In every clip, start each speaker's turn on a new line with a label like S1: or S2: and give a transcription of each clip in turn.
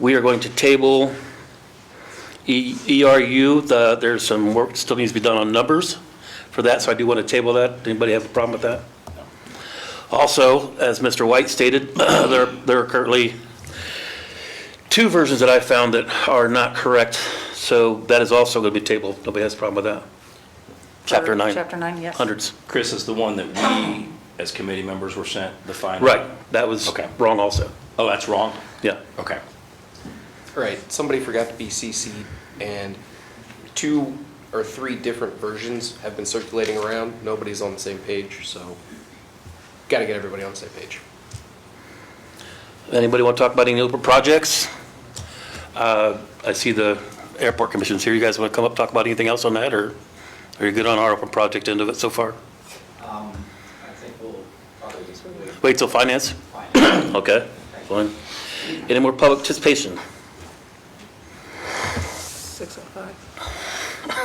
S1: We are going to table E- ERU, the, there's some work that still needs to be done on numbers for that, so I do want to table that. Anybody have a problem with that? Also, as Mr. White stated, there, there are currently two versions that I found that are not correct, so that is also going to be tabled. Nobody has a problem with that. Chapter nine.
S2: Chapter nine, yes.
S1: Hundreds.
S3: Chris is the one that we, as committee members, were sent the final.
S1: Right, that was
S3: Okay.
S1: wrong also.
S3: Oh, that's wrong?
S1: Yeah.
S3: Okay.
S4: All right, somebody forgot to be CC'd, and two or three different versions have been circulating around. Nobody's on the same page, so got to get everybody on the same page.
S1: Anybody want to talk about any other projects? Uh, I see the airport commission's here. You guys want to come up, talk about anything else on that, or are you good on our open project end of it so far?
S5: Um, I think we'll probably just wait.
S1: Wait till finance?
S5: Fine.
S1: Okay, fine. Any more public participation?
S2: Six oh five.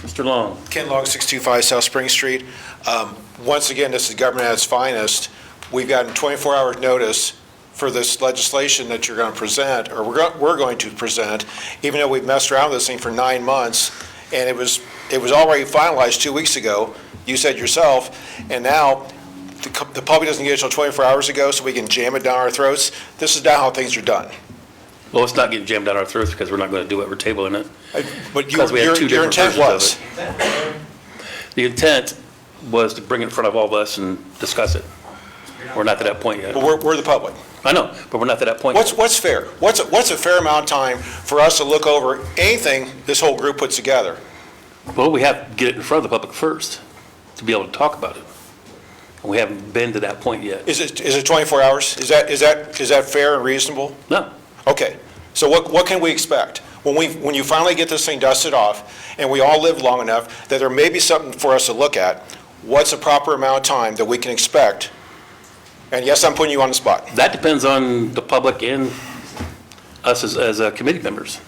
S1: Mr. Long?
S6: Ken Long, 625 South Spring Street. Um, Once again, this is government at its finest. We've gotten 24 hours notice for this legislation that you're going to present, or we're go- we're going to present, even though we've messed around with this thing for nine months, and it was, it was already finalized two weeks ago, you said yourself, and now the co- the public doesn't get it till 24 hours ago, so we can jam it down our throats. This is not how things are done.
S1: Well, it's not getting jammed down our throats because we're not going to do it. We're tabling it.
S6: But your
S1: Because we had two
S6: your
S1: different
S6: intent
S1: versions of
S6: was.
S1: it. The intent was to bring it in front of all of us and discuss it. We're not to that point yet.
S6: But we're- we're the public.
S1: I know, but we're not to that point.
S6: What's,
S1: yet.
S6: what's fair? What's, what's a fair amount of time for us to look over anything this whole group puts together?
S1: Well, we have to get it in front of the public first to be able to talk about it. And we haven't been to that point yet.
S6: Is it, is it 24 hours? Is that, is that, is that fair and reasonable?
S1: No.
S6: Okay, so what, what can we expect? When we, when you finally get this thing dusted off, and we all live long enough, that there may be something for us to look at, what's a proper amount of time that we can expect? And yes, I'm putting you on the spot.
S1: That depends on the public and us as, as uh, committee members.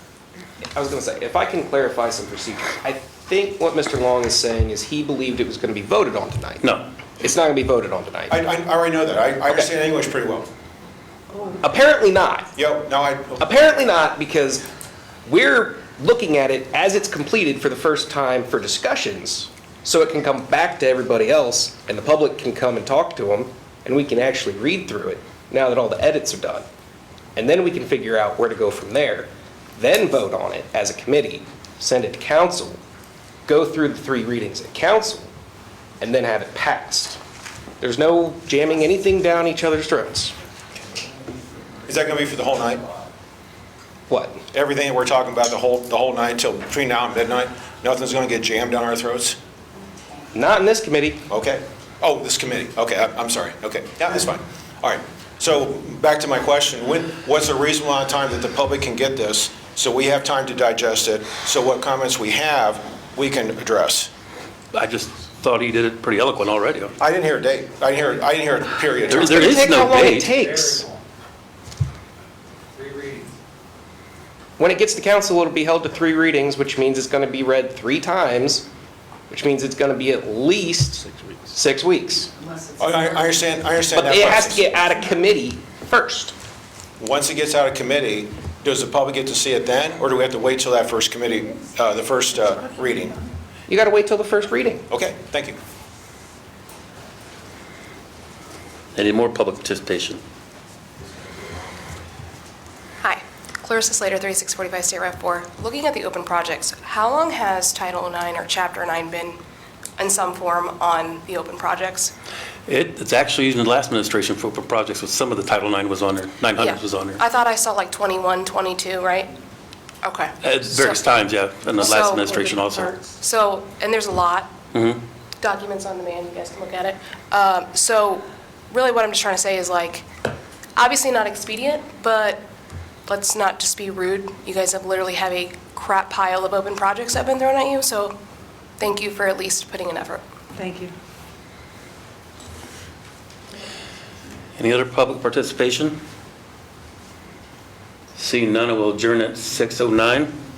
S4: I was going to say, if I can clarify some procedure, I think what Mr. Long is saying is he believed it was going to be voted on tonight.
S1: No.
S4: It's not going to be voted on tonight.
S6: I, I already know that. I, I understand English pretty well.
S4: Apparently not.
S6: Yep, now I.
S4: Apparently not, because we're looking at it as it's completed for the first time for discussions, so it can come back to everybody else, and the public can come and talk to them, and we can actually read through it, now that all the edits are done. And then we can figure out where to go from there, then vote on it as a committee, send it to council, go through the three readings at council, and then have it passed. There's no jamming anything down each other's throats.
S6: Is that gonna be for the whole night?
S4: What?
S6: everything that we're talking about the whole, the whole night till between now and midnight, nothing's going to get jammed down our throats?
S4: Not in this committee.
S6: Okay. Oh, this committee, okay, I- I'm sorry, okay, yeah, that's fine. All right, so back to my question, when, what's a reasonable amount of time that the public can get this, so we have time to digest it, so what comments we have, we can address?
S1: I just thought he did it pretty eloquent already.
S6: I didn't hear a date, I didn't hear, I didn't hear a period.
S1: There- there
S4: It
S1: is
S4: takes
S1: no
S4: how long
S1: date.
S4: it takes.
S5: Three readings.
S4: When it gets to council, it'll be held to three readings, which means it's going to be read three times, which means it's going to be at least six weeks.
S6: I, I I understand, I understand that
S4: But
S6: process.
S4: it has to get out of committee first.
S6: Once it gets out of committee, does the public get to see it then, or do we have to wait till that first committee, uh, the first uh, reading?
S4: You got to wait till the first reading.
S6: Okay, thank you.
S1: Any more public participation?
S7: Hi, Clarissa Slater, 3645 State Rep. 4. Looking at the open projects, how long has Title IX or Chapter 9 been in some form on the open projects?
S1: It, it's actually used in the last administration for for projects with some of the Title IX was on there, 900
S7: Yeah.
S1: was on there.
S7: I thought I saw like 21, 22, right? Okay.
S1: At various times, yeah, in the
S7: So-
S1: last administration Mm-hmm. also.
S7: So, and there's a lot. Documents on demand, you guys can look at it. Um, So really what I'm just trying to say is like, obviously not expedient, but let's not just be rude. You guys have literally have a crap pile of open projects that have been thrown at you, so thank you for at least putting an effort.
S2: Thank you.
S1: Any other public oh participation? Seeing none, I will adjourn at 6:09.